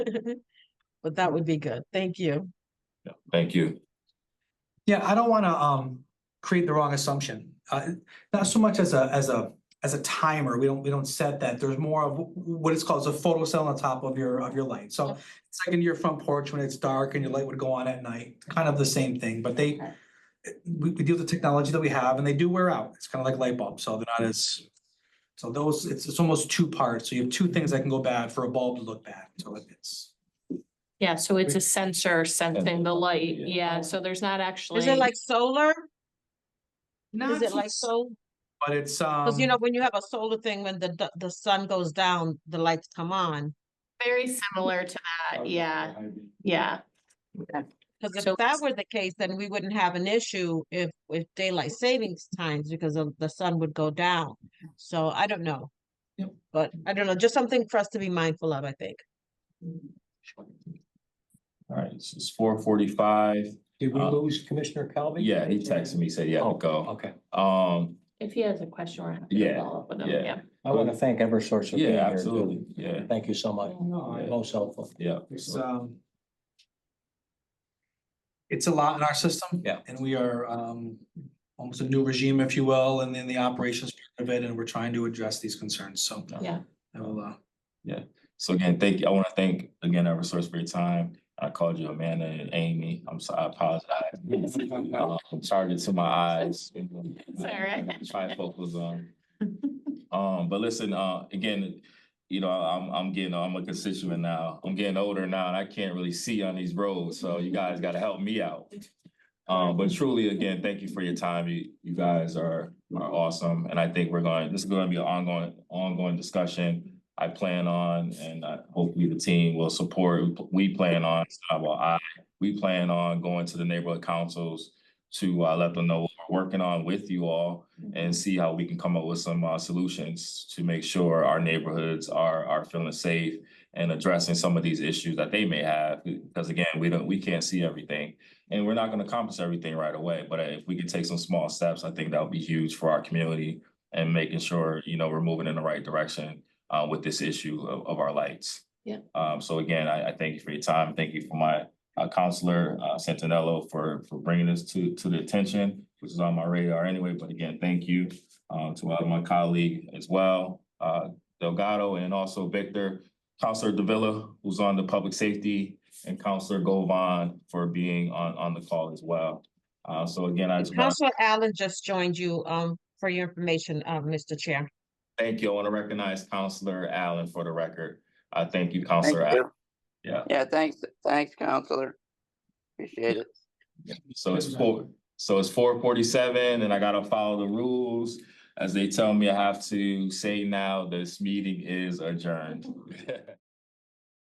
But that would be good. Thank you. Thank you. Yeah, I don't want to um create the wrong assumption. Uh, not so much as a as a as a timer. We don't we don't set that. There's more of wh- what it's called is a photo cell on top of your of your light. So it's like in your front porch when it's dark and your light would go on at night. Kind of the same thing, but they Okay. we we deal with the technology that we have and they do wear out. It's kind of like light bulbs, so they're not as so those it's it's almost two parts. So you have two things that can go bad for a bulb to look bad. So it's Yeah, so it's a sensor sensing the light. Yeah. Yeah, so there's not actually. Is it like solar? not Is it so- like so? But it's um. Cause you know, when you have a solar thing, when the, d- the sun goes down, the lights come on. Very similar to Oh, that. Uh, Yeah, yeah. Cause if So that it's- were the case, then we wouldn't have an issue if, if daylight savings times because of the sun would go down. So I don't know. Yep. But I don't know, just something for us to be mindful of, I think. All right, this is four forty-five. Did we Uh, lose Commissioner Calvi? Yeah, he texted me, said, yeah, I'll go. Oh, Okay, Um, If he has a question, we're happy Yeah, to follow up with him. yeah. Yeah. I want to thank Eversource for being yeah, here. too. absolutely. Yeah, Thank you so much, No, I- most helpful. yeah. It's um. It's a lot in our system. Yeah. And we are um almost a new regime, if you will, and then the operations part of it, and we're trying to address these concerns, so. Yeah. I will, uh, So again, thank you. I want to thank again our resource for your time. I called you Amanda and Amy. I'm sorry, I apologize. Uh, I'm charging to my eyes. all right. Try to focus on. Um, but listen, uh, again, you know, I'm, I'm getting, I'm a constituent now. I'm getting older now and I can't really see on these roads, so you guys gotta help me out. Um, but truly, again, thank you for your time. You, you guys are, are awesome. And I think we're going, this is gonna be an ongoing, ongoing discussion. I plan on, and I- hopefully the team will support, we plan on, uh, well, I, we plan on going to the neighborhood councils to, uh, let them know what we're working on with you all and see how we can come up with some uh solutions to make sure our neighborhoods are are feeling safe and addressing some of these issues that they may have, because again, we don't, we can't see everything. And we're not gonna accomplish everything right away, but if we can take some small steps, I think that would be huge for our community and making sure, you know, we're moving in the right direction uh with this issue of of our lights. Yeah. Um, so again, I I thank you for your time. Thank you for my uh counselor uh Santinello for for bringing this to to the attention, which is on my radar anyway, but again, thank you um to all of my colleague as well, uh Delgado and also Victor, Counselor Davila, who's on the public safety and Counselor Govan for being on on the call as well. Uh so again, I just want Counselor Allen just joined you, um, for your information, uh, Mr. Chair. to thank you. I want to recognize Counselor Allen for the record. Uh thank you, Counselor Thank Allen. you. Yeah. Yeah, thanks, thanks, counselor. Appreciate it. So it's four, so it's four forty-seven and I gotta follow the rules. As they tell me I have to say now, this meeting is adjourned.